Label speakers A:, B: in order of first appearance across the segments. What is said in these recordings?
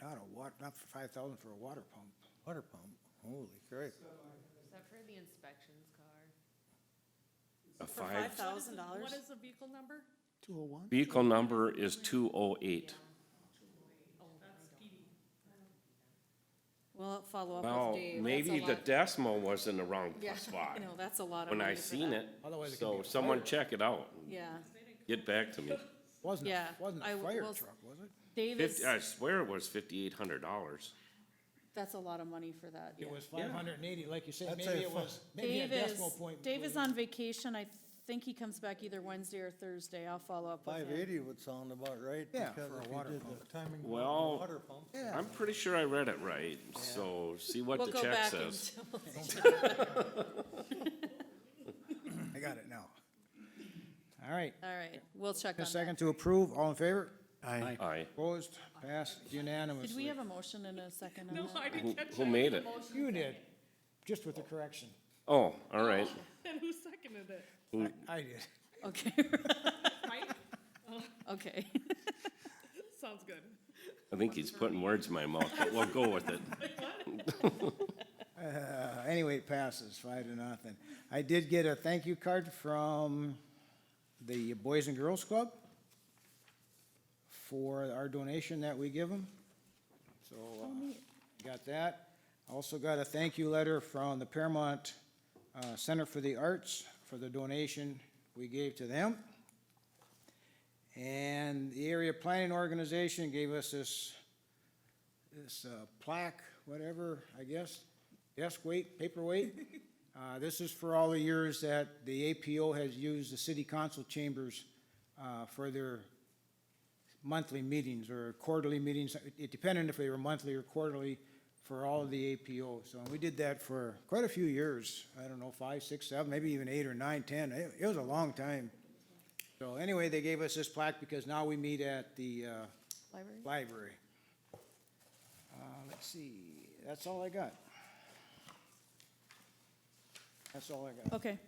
A: God, a wa, Oh, not for five thousand for a water pump.
B: Water pump, holy crap.
C: Is that for the inspections car?
D: A
E: For
D: five,
E: five thousand dollars?
C: What is the vehicle number?
A: Two oh one?
D: vehicle number is two oh eight.
E: Well, follow up
D: Well,
E: with Dave.
D: maybe
E: That's a
D: the
E: lot.
D: decimal was in the wrong
E: Yeah,
D: spot
E: You know, that's a lot of
D: when
E: money
D: I
E: for
D: seen
E: that.
D: it.
B: Otherwise it could be
D: So
B: a
D: someone
B: fire.
D: check it out. and
E: Yeah.
D: Get back to me.
A: Wasn't, a-
E: Yeah,
A: wasn't
E: I
A: a fire
E: was-
A: truck, was it?
E: Dave is,
D: Fifty, I swear it was fifty-eight hundred dollars.
E: that's a lot of money for that. yeah.
B: It was five hundred and eighty, like you said,
A: That's
B: maybe
A: a
B: it
A: fu-
B: was, maybe a
E: Dave is,
B: decimal point.
E: Dave is
B: blew.
E: on vacation. I think he comes back either Wednesday or Thursday. I'll follow up with him.
F: Five eighty would sound about right.
A: Yeah,
F: because
A: for a
F: if you
A: water
F: did the
A: pump.
F: Timing. of the
D: Well,
F: Water pump.
D: I'm pretty sure I read it right, so see what
E: We'll
D: the
E: go
D: check
E: back
D: says.
E: and
A: I got it now. All right,
E: All right, we'll check
A: a
E: on that.
A: second to approve, all in favor?
D: Aye.
A: Opposed, passed unanimously.
E: Did we have a motion in a second on
C: No,
E: that?
C: I
D: Who,
C: didn't catch
D: who
C: that.
D: made it?
B: You did, just with the correction.
D: Oh, all right.
C: And who seconded it?
D: Who-
B: I did.
E: Okay,
C: Mike?
E: okay.
C: Sounds good.
D: I think he's putting words in my mouth, but we'll go with it.
A: Uh, Anyway, it passes five to nothing. I did get a thank you card from the Boys and Girls Club for our donation that we give them. So, uh, got that. Also got a thank you letter from the Paramount uh, Center for the Arts for the donation we gave to them. And the area planning organization gave us this, this uh, plaque, whatever, I guess, desk weight, paperweight. Uh, This is for all the years that the APO has used the city council chambers uh, for their monthly meetings or quarterly meetings. It- It depended if they were monthly or quarterly for all of the APO. So we did that for quite a few years. I don't know, five, six, seven, maybe even eight or nine, ten. It it was a long time. So anyway, they gave us this plaque because now we meet at the uh,
E: Library?
A: library. Uh, Let's see, that's all I got. That's all I got.
E: Okay.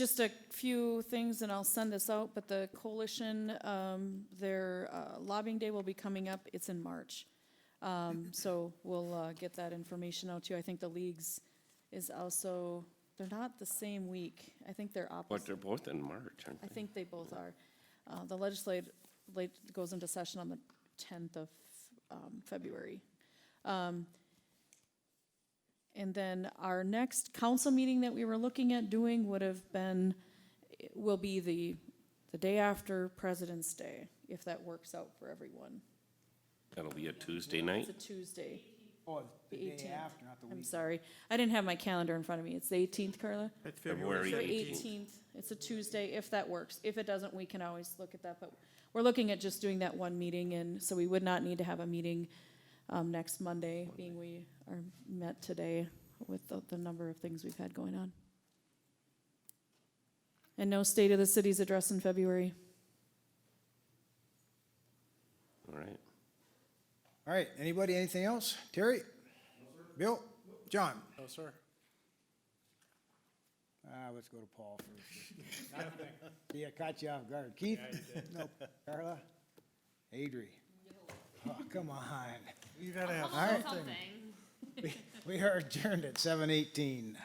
E: Just a few things, and I'll send this out, but the coalition, um, their uh, lobbying day will be coming up. It's in March. Um, so we'll, uh, get that information out to you. I think the leagues is also, they're not the same week. I think they're
D: But
E: opposite.
D: they're both in March, aren't
E: I
D: they?
E: think they both are. Uh, The legislative, late, goes into session on the 10th of um, February. Um, And then our next council meeting that we were looking at doing would have been, will be the, the day after President's Day, if that works out for everyone.
D: That'll be a Tuesday night.
E: It's a Tuesday,
A: Oh, the
E: the
A: day
E: 18th.
A: after, not the
E: I'm
A: week.
E: sorry. I didn't have my calendar in front of me. It's the 18th, Carla?
D: February
E: February
D: 18th.
E: 18th, it's a Tuesday, if that works. If it doesn't, we can always look at that, but we're looking at just doing that one meeting, and so we would not need to have a meeting um, next Monday, being we are met today with the, the number of things we've had going on. And no state of the city's address in February.
D: All right.
A: All right, anybody, anything else? Terry? Bill? John?
B: No, sir.
A: Ah, let's go to Paul first. Yeah, caught you off guard. Keith? Nope. Carla? Adri? Oh, come on.
F: You gotta have
A: All right,
C: Something.
A: we are adjourned at seven eighteen.